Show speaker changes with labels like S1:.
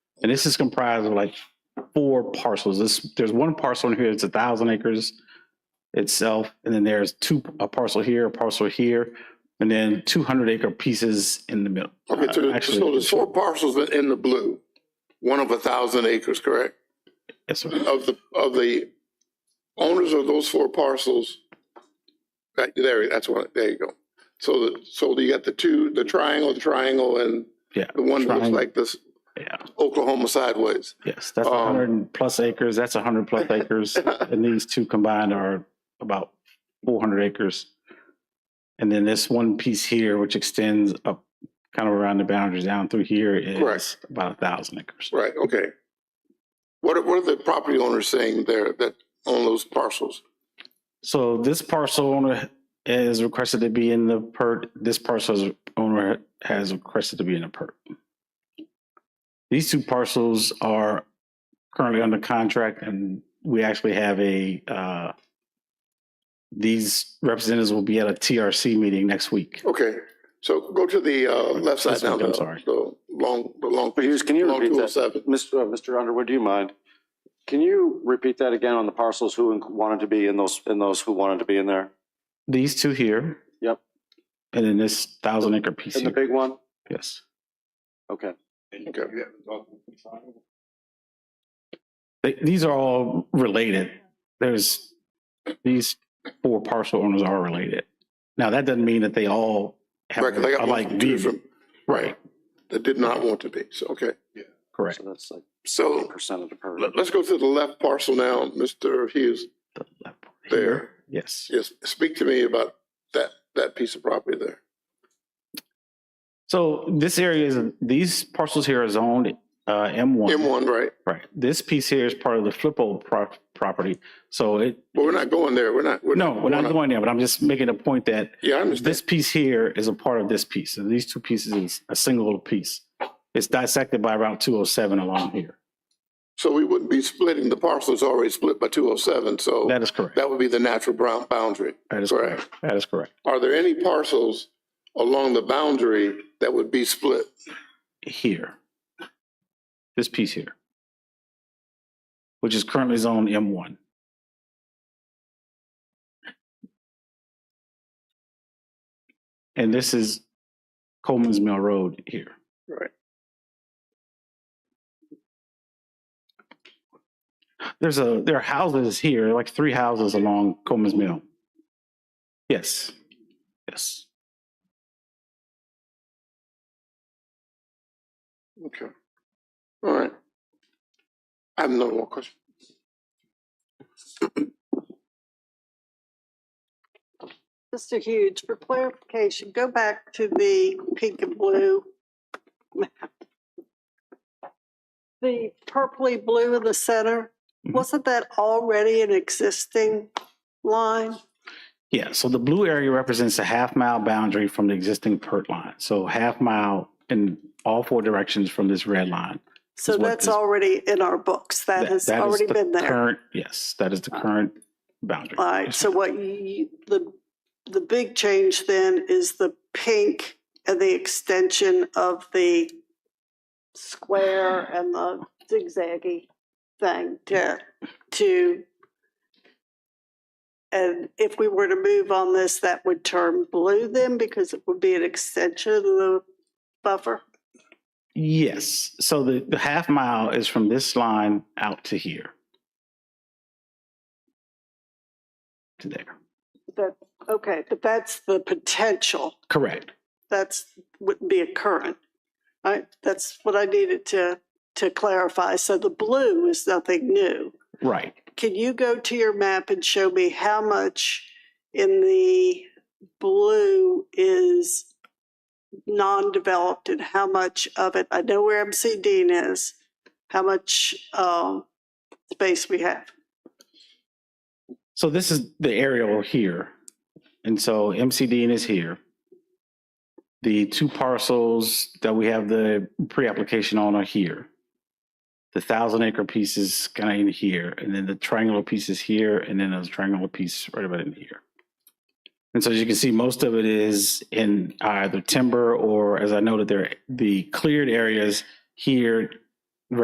S1: this is comprised of like four parcels. This, there's one parcel in here, it's a thousand acres itself, and then there's two, a parcel here, a parcel here, and then two hundred acre pieces in the middle. Uh,
S2: Okay, so, the- so
S1: Actually,
S2: there's four parcels that in the blue, one of a thousand acres, correct?
S1: yes, sir.
S2: Of the, of the owners of those four parcels. Right, there, that's one, there you go. So the, so you got the two, the triangle, the triangle and
S1: Yeah,
S2: the one that looks
S1: triangle.
S2: like this
S1: Yeah,
S2: Oklahoma sideways.
S1: yes, that's
S2: Um,
S1: hundred and plus acres, that's hundred plus acres, and these two combined are about four hundred acres. And then this one piece here, which extends up kind of around the boundaries down through here is
S2: Correct.
S1: about a thousand acres.
S2: Right, okay. What are, what are the property owners saying there that own those parcels?
S1: So this parcel owner is requested to be in the PERT. This parcel's owner has requested to be in the PERT. These two parcels are currently under contract and we actually have a, uh, these representatives will be at a TRC meeting next week.
S2: Okay, so go to the, uh, left side
S1: This
S2: now.
S1: one, I'm
S2: the-
S1: sorry.
S2: The long, the long,
S3: Hughes, can you
S2: long
S3: repeat
S2: two oh
S3: that?
S2: seven.
S3: Mr. uh, Mr. Underwood, do you mind? Can you repeat that again on the parcels who in- wanted to be in those, and those who wanted to be in there?
S1: These two here.
S3: Yep.
S1: And then this thousand acre piece
S3: And the
S1: here.
S3: big one?
S1: Yes.
S3: Okay.
S2: Okay.
S1: They, these are all related. There's these four parcel owners are related. Now that doesn't mean that they all have
S2: Right, 'cause I
S1: are
S2: got one
S1: like
S2: from two
S1: these.
S2: from, right, that did not want to be, so, okay.
S1: Correct.
S3: So that's like
S2: So
S3: percent of the per.
S2: let, us go to the left parcel now, Mr. Hughes,
S1: The left one here.
S2: there.
S1: Yes.
S2: Yes, speak to me about that, that piece of property there.
S1: So this area is these parcels here are zoned uh, M1.
S2: M one, right?
S1: Right. This piece here is part of the Flippo pro- property. So it
S2: But we're not going there, we're not.
S1: no, we're not
S2: on.
S1: going there, but I'm just making a point that
S2: Yeah, I understand,
S1: this piece here is a part of this piece. So these two pieces is a single piece. It's dissected by Route 207 along here.
S2: so we wouldn't be splitting, the parcel is already split by two oh seven, so
S1: That is correct.
S2: that would be the natural brown boundary.
S1: That is
S2: Correct.
S1: correct. That is correct.
S2: Are there any parcels along the boundary that would be split?
S1: Here. This piece here. Which is currently zone M1. And this is Coleman's Mill Road here.
S2: Right.
S1: There's a, there are houses here, like three houses along Coleman's Mill. Yes. Yes.
S2: Okay. All right. I have no more question.
S4: Mr. Hughes, for clarification, go back to the pink and blue map. The purpley blue in the center,
S1: Mhm.
S4: wasn't that already an existing line?
S1: Yeah, so the blue area represents a half mile boundary from the existing PERT line. So half mile in all four directions from this red line.
S4: So
S1: Is what
S4: that's
S1: is-
S4: already in our books. That has
S1: is
S4: already
S1: the
S4: been there.
S1: Current, yes, that is the current boundary.
S4: All right, so what you, the, the big change then is the pink and the extension of the square and the zigzaggy thing to, to, and if we were to move on this, that would turn blue then because it would be an extension of the buffer?
S1: Yes, so the, the half mile is from this line out to here. To there,
S4: That, okay, but that's the potential.
S1: correct.
S4: that's, wouldn't be a current. I, that's what I needed to, to clarify. So the blue is nothing new.
S1: Right,
S4: Can you go to your map and show me how much in the blue is non-developed and how much of it, I know where MC Dean is, how much, um, space we have?
S1: so this is the aerial here. And so MCD is here. The two parcels that we have the pre-application on are here. The thousand acre piece is kind of in here, and then the triangular piece is here, and then there's a triangular piece right about in here. And so as you can see, most of it is in either timber or, as I noted there, the cleared areas here